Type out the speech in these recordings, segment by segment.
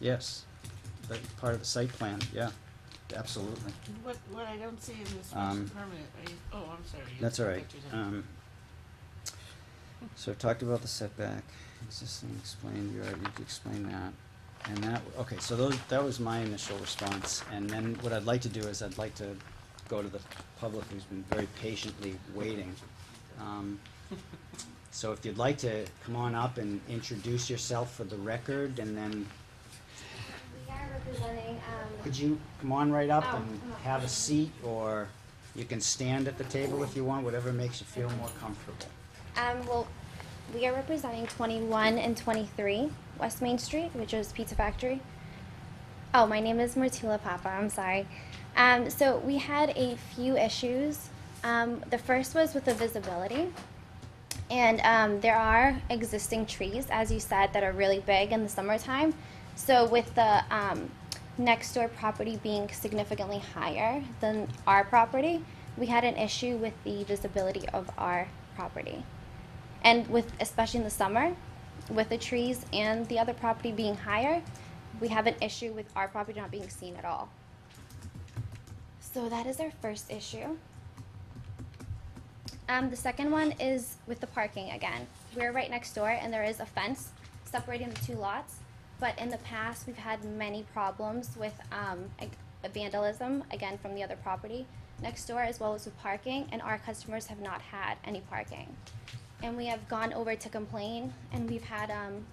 Yes, that part of the site plan, yeah, absolutely. What, what I don't see in this Um, special permit, are you, oh, I'm sorry. you That's all have right. pictures of it. Um, so I've talked about the setback, existing explained, you already explained that. And that, okay, so those, that was my initial response, and then what I'd like to do is I'd like to go to the public who's been very patiently waiting. Um, so if you'd like to come on up and introduce yourself for the record, and then We are representing, um, Could you come on right up Oh, and come on. have a seat, or you can stand at the table if you want, whatever makes you feel more comfortable. um, well, we are representing twenty-one and twenty-three West Main Street, which is Pizza Factory. Oh, my name is Martula Papa, I'm sorry. Um, so we had a few issues. Um, the first was with the visibility. And um, there are existing trees, as you said, that are really big in the summertime. So with the um, next door property being significantly higher than our property, we had an issue with the visibility of our property. And with, especially in the summer, with the trees and the other property being higher, we have an issue with our property not being seen at all. So that is our first issue. Um, the second one is with the parking again. We're right next door and there is a fence separating the two lots. But in the past, we've had many problems with, um, ag- vandalism, again, from the other property next door as well as with parking, and our customers have not had any parking. And we have gone over to complain and we've had, um,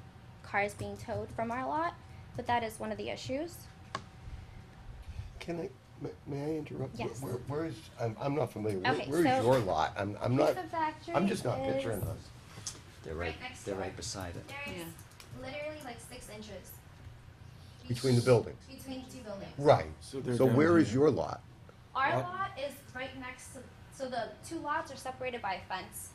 cars being towed from our lot, but that is one of the issues. Can I, may- may I interrupt? Yes. Where, where is, I'm, I'm not familiar. Where- Okay, so- Where's your lot? I'm, I'm not, Pizza Factory I'm just not is- picturing this. They're right, Right next they're door. right beside it. There is literally like six inches. Between the buildings? Between two buildings. Right. So they're So down where is here. your lot? Our What? lot is right next to, so the two lots are separated by a fence.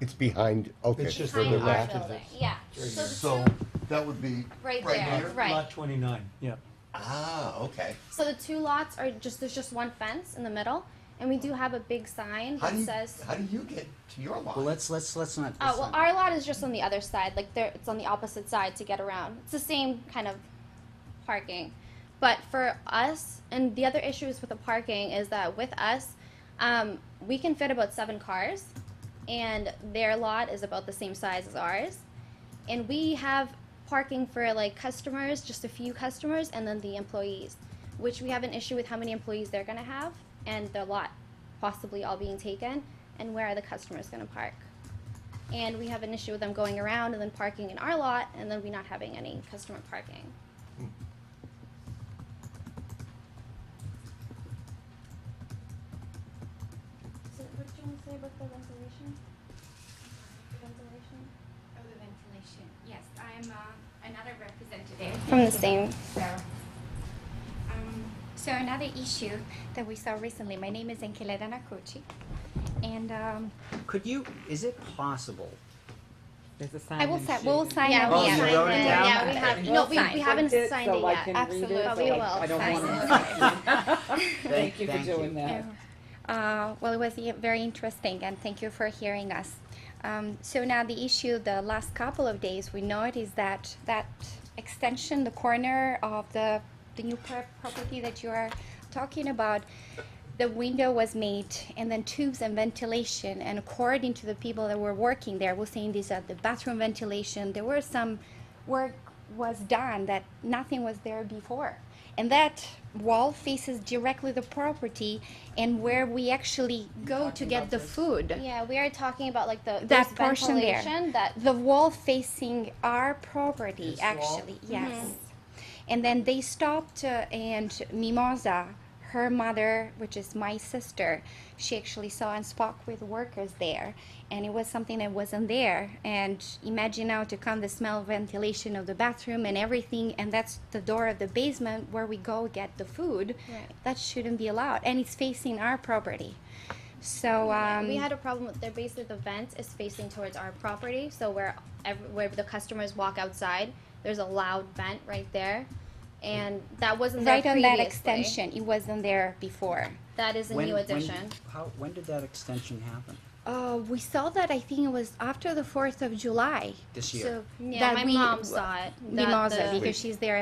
It's behind, okay. It's just so Behind the they're our left back. of building, this. yeah. So So the two, that would be. right there, Lot right. twenty-nine, yeah. Ah, okay. So the two lots are just, there's just one fence in the middle, and we do have a big sign How that do you, says, how do you get to your lot? Well, let's, let's, let's not. oh, let's well, not- our lot is just on the other side, like there, it's on the opposite side to get around. It's the same kind of parking. But for us, and the other issues with the parking is that with us, um, we can fit about seven cars, and their lot is about the same size as ours. And we have parking for like customers, just a few customers, and then the employees, which we have an issue with how many employees they're gonna have and their lot possibly all being taken, and where are the customers gonna park? And we have an issue with them going around and then parking in our lot, and then we not having any customer parking. Hmm. So what do you want to say about the ventilation? Ventilation? Oh, the ventilation. Yes, I'm uh, another representative. From the same, So, um, so another issue that we saw recently. My name is Enkeleda Nakuchi, and um, Could you, is it possible? There's a sign. I will and sign. shoot. We'll sign Yeah, Oh, on we'll the sign app. it. Yeah, Yeah, we have, We'll no, we, sign. we haven't Print signed so it I yet, can read it, absolutely, so but we I- will I don't sign want it. to- Thank you for doing that. Uh, well, it was e- very interesting, and thank you for hearing us. Um, so now the issue, the last couple of days, we know it is that that extension, the corner of the the new per- property that you are talking about, the window was made, and then tubes and ventilation. And according to the people that were working there, were saying these are the bathroom ventilation. There were some work was done that nothing was there before. And that wall faces directly the property and where we actually go to get the food. Yeah, we are talking about like the That there's portion there. ventilation that The wall facing our property, actually, Mm-hmm. yes. And then they stopped, uh, and Mimosa, her mother, which is my sister, she actually saw and spoke with workers there, and it was something that wasn't there. And imagine now to come the smell, ventilation of the bathroom and everything, and that's the door of the basement where we go get the food. Right. That shouldn't be allowed, and it's facing our property. So um, we had a problem with their basically the vent is facing towards our property, so where every, where the customers walk outside, there's a loud vent right there, and that wasn't there right on that previously. extension, it wasn't there before. That is a When- new when- addition. How, when did that extension happen? Uh, we saw that I think it was after the Fourth of July. This year. So Yeah, that my we- mom saw it. that Mimosa, the- because she's there